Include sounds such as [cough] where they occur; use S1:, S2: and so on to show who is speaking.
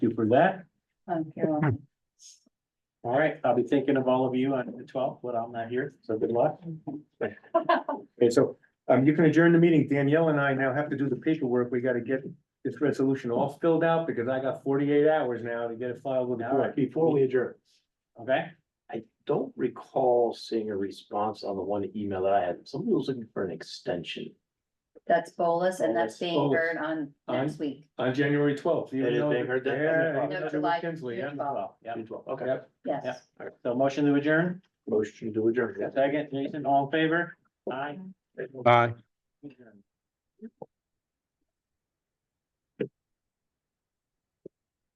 S1: for that.
S2: I'm Um, Carolyn.
S1: All right, I'll be thinking of all of you on the twelfth, but I'm not here, so good
S3: [laughs]
S1: luck. Okay, so um you can adjourn the meeting. Danielle and I now have to do the paperwork. We gotta get this resolution all filled out because I got forty-eight hours now to get it filed with the
S3: All right,
S1: court.
S3: before we adjourn,
S1: Okay,
S3: I don't recall seeing a response on the one email that I had. Somebody was looking for an extension.
S2: That's bolus and that's
S3: Bolus,
S2: being
S1: bolus.
S2: heard on next week.
S1: on January twelfth.
S3: They didn't- they heard that?
S1: Yeah.
S3: No,
S1: you know,
S2: July
S1: Jim Kinsley, yeah.
S2: 12th.
S1: Yeah.
S3: June 12th, Okay,
S1: Yep.
S2: Yes.
S1: Yeah. So motion to adjourn,
S3: motion to adjourn.
S1: second, Jason, all in favor? Aye.
S4: Bye.
S1: Adjourn.